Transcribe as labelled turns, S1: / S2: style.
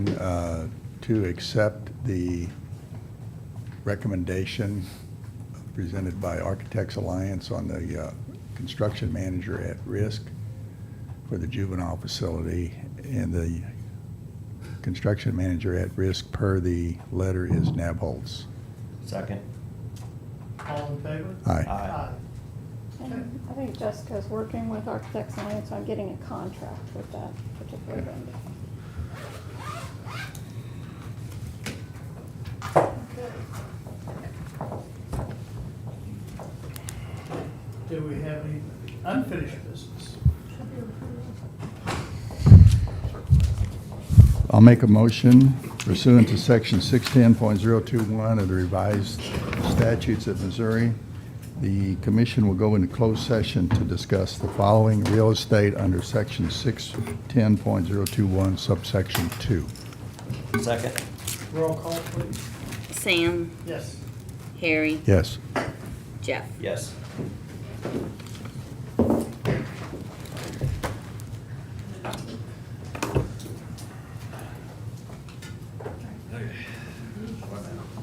S1: uh, to accept the recommendation presented by Architects Alliance on the uh, construction manager at risk for the juvenile facility, and the construction manager at risk per the letter is Nabholz.
S2: Second.
S3: All in favor?
S1: Aye.
S2: Aye.
S3: Okay.
S4: And I think Jessica's working with Architects Alliance on getting a contract with that particular vendor.
S3: Do we have any unfinished business?
S1: I'll make a motion pursuant to section 610.021 of the revised statutes of Missouri. The commission will go into closed session to discuss the following real estate under section 610.021 subsection 2.
S2: Second.
S3: Roll call, please.
S5: Sam,
S3: Yes.
S5: Harry,
S1: Yes.
S5: Jeff.
S2: Yes.